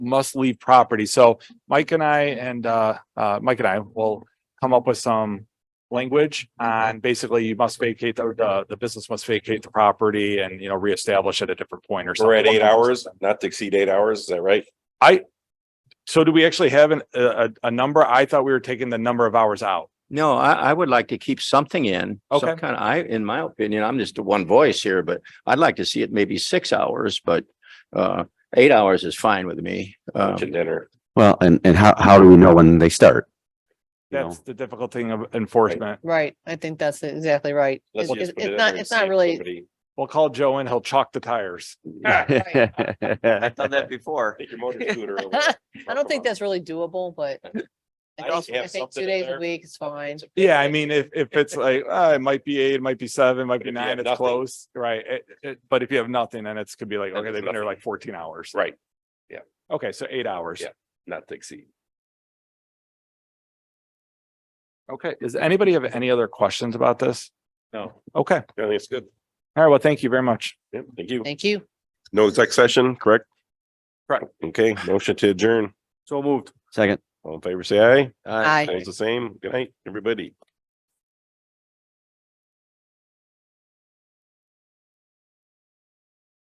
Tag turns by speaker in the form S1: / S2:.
S1: must leave property. So Mike and I and uh, uh, Mike and I will come up with some language on basically you must vacate the, the, the business must vacate the property and, you know, reestablish at a different point or something.
S2: We're at eight hours, not to exceed eight hours, is that right?
S1: So do we actually have an, a, a, a number? I thought we were taking the number of hours out.
S3: No, I, I would like to keep something in. some
S1: Okay.
S3: Kind of, I, in my opinion, I'm just a one voice here, but I'd like to see it maybe six hours, but, uh, eight hours is fine with me. Um,
S2: Lunch and dinner.
S4: Well, and, and how, how do we know when they start? You know?
S1: That's the difficult thing of enforcement.
S5: Right, I think that's exactly right.
S2: Let's
S5: It's
S2: just
S5: it's-
S2: put it
S5: it's
S2: in
S5: not,
S2: there
S5: it's
S2: and see
S5: not
S2: if
S5: really,
S2: somebody-
S1: We'll call Joe and he'll chalk the tires.
S6: I've done that before.
S2: Take your motor scooter over.
S5: I don't think that's really doable, but I
S2: I
S5: think,
S2: have
S5: I think
S2: something
S5: two
S2: in
S5: days
S2: there.
S5: a week is fine.
S1: Yeah, I mean, if, if it's like, uh, it might be eight, it might be seven, it might
S2: But
S1: be
S2: if you
S1: nine,
S2: have
S1: it's
S2: nothing-
S1: close, right? It- it- but if you have nothing, then it's could be like,
S2: Then
S1: okay,
S2: it's
S1: they've been there
S2: nothing.
S1: like fourteen hours.
S2: Right,
S1: Okay, so eight hours.
S2: Yeah. not to exceed.
S1: Okay, does anybody have any other questions about this?
S2: No.
S1: Okay, all
S2: I think it's good.
S1: right, well, thank you very much.
S2: Yep, thank you.
S5: Thank you.
S2: No exec session, correct?
S1: Correct.
S2: Okay, motion to adjourn.
S1: So moved.
S4: Second.
S2: All in favor, say aye.
S5: Aye.
S2: It's the same. Good night, everybody.